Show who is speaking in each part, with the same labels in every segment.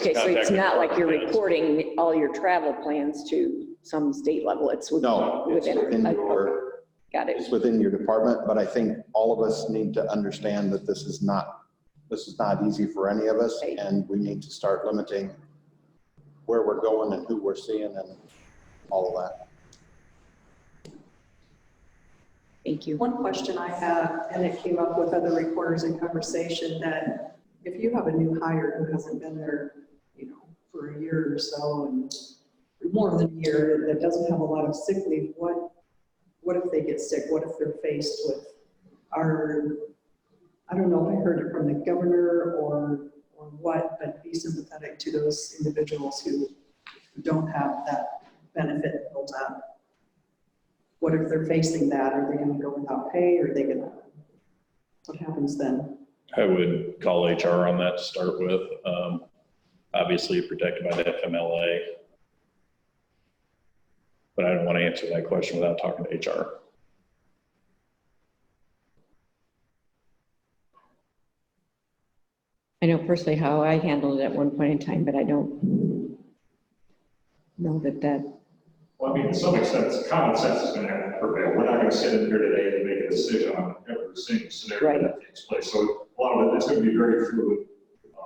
Speaker 1: Okay, so it's
Speaker 2: Contact
Speaker 1: not like you're
Speaker 2: department.
Speaker 1: reporting all your travel plans to some state level, it's within.
Speaker 3: No, it's within
Speaker 1: okay,
Speaker 3: your,
Speaker 1: Got it.
Speaker 3: it's within your department, but I think all of us need to understand that this is not, this is not easy for any of us,
Speaker 1: Right.
Speaker 3: and we need to start limiting where we're going and who we're seeing and all of that.
Speaker 1: Thank you.
Speaker 4: One question I have, and it came up with other reporters in conversation, that if you have a new hire who hasn't been there, you know, for a year or so, and or more than a year, that doesn't have a lot of sick leave, what, what if they get sick? What if they're faced with our, I don't know if I heard it from the governor or, or what, but be sympathetic to those individuals who don't have that benefit built up what if they're facing that? Are they gonna go without pay? Are they gonna, what happens then?
Speaker 2: I would call HR on that to start with. Um, Obviously protected by the FMLA. But I don't want to answer that question without talking to HR.
Speaker 5: I know personally how I handled it at one point in time, but I don't know that that,
Speaker 6: Well, I mean, to some extent, it's common sense is gonna have to prevail. We're not gonna sit in here today and make a decision on every single scenario that takes place. So a lot of it, it's gonna be very fluid,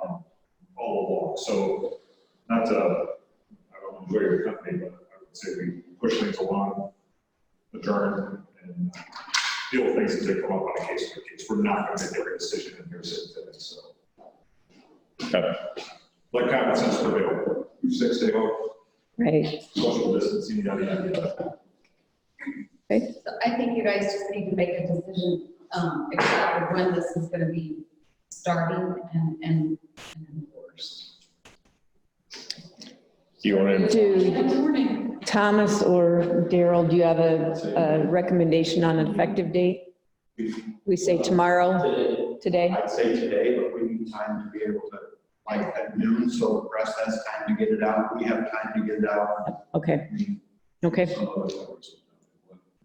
Speaker 6: um, all along. So not to, I don't enjoy your company, but I would say we push things along, adjourn, and uh, deal with things as they come up on a case by case. We're not gonna make every decision in here sitting today, so.
Speaker 2: Okay.
Speaker 6: Let common sense prevail. Six day off,
Speaker 5: right?
Speaker 6: social distancing, yada, yada, yada.
Speaker 7: So I think you guys just need to make a decision, um, exactly when this is gonna be starting and, and and enforced.
Speaker 2: Do you want to,
Speaker 5: Do
Speaker 7: morning.
Speaker 5: Thomas or Daryl, do you have a, a recommendation on an effective date? We say tomorrow,
Speaker 8: Today,
Speaker 5: today?
Speaker 8: I'd say today, but we need time to be able to, like at noon, so the press has time to get it out. We have time to get it out.
Speaker 5: Okay, okay.
Speaker 8: Some of us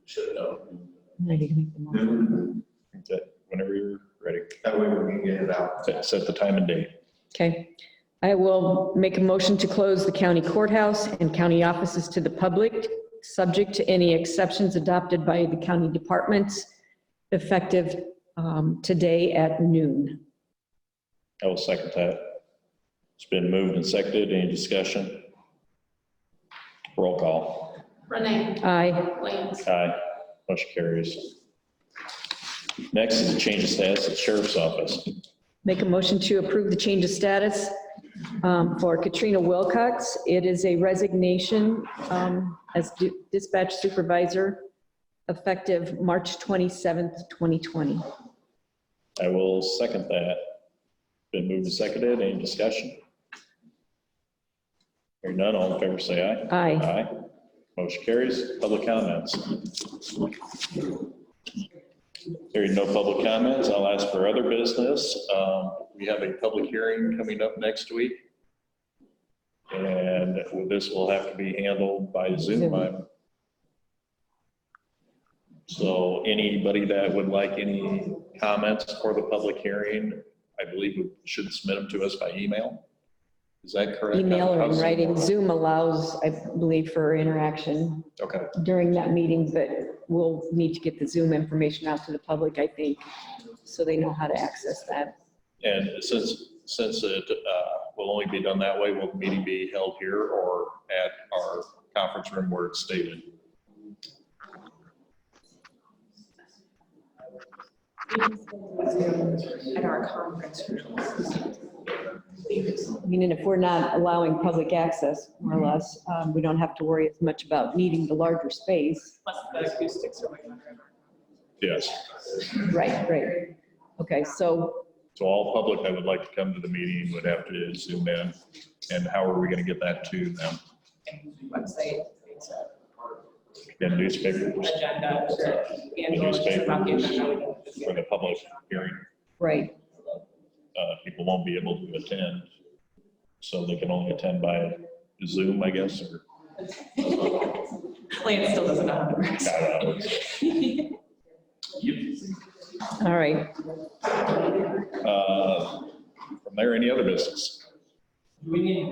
Speaker 8: Should know.
Speaker 5: Now you can make the motion.
Speaker 8: Noon,
Speaker 2: whenever you're ready,
Speaker 8: That way we can get it out.
Speaker 2: set set the time and date.
Speaker 5: Okay. I will make a motion to close the county courthouse and county offices to the public, subject to any exceptions adopted by the county departments, effective um, today at noon.
Speaker 2: I will second that. It's been moved and seconded. Any discussion? Roll call.
Speaker 7: Renee,
Speaker 5: Aye.
Speaker 7: Lance,
Speaker 2: Aye. Motion carries. Next is a change of status at Sheriff's Office.
Speaker 5: Make a motion to approve the change of status um, for Katrina Wilcox. It is a resignation um, as du- dispatch supervisor, effective March 27th, 2020.
Speaker 2: I will second that. Been moved and seconded. Any discussion? Hearing none, all in favor say aye.
Speaker 5: Aye.
Speaker 2: Aye. Motion carries. Public comments. Hearing no public comments, I'll ask for other business. Um, We have a public hearing coming up next week. And this will have to be handled by Zoom. I'm- So anybody that would like any comments for the public hearing, I believe we should submit them to us by email. Is that correct?
Speaker 5: email or in
Speaker 2: How's-
Speaker 5: writing. Zoom allows, I believe, for interaction
Speaker 2: Okay.
Speaker 5: during that meeting, but we'll need to get the Zoom information out to the public, I think, so they know how to access that.
Speaker 2: And since, since it uh, will only be done that way, will the meeting be held here or at our conference room where it's stated?
Speaker 4: At our conference room.
Speaker 5: I mean, and if we're not allowing public access, more or less, um, we don't have to worry as much about needing the larger space.
Speaker 2: Yes.
Speaker 5: Right, right. Okay, so,
Speaker 2: So all public that would like to come to the meeting would have to zoom in. And how are we going to get that to them?
Speaker 9: website, it's a
Speaker 2: In newspapers
Speaker 9: agenda, or handle, it's about the agenda.
Speaker 2: for the public hearing,
Speaker 5: right,
Speaker 2: uh, people won't be able to attend. So they can only attend by Zoom, I guess, or.
Speaker 9: Lance still doesn't know how to work.
Speaker 2: I don't know.
Speaker 5: all right.
Speaker 2: Uh, From there, any other business?
Speaker 9: we need to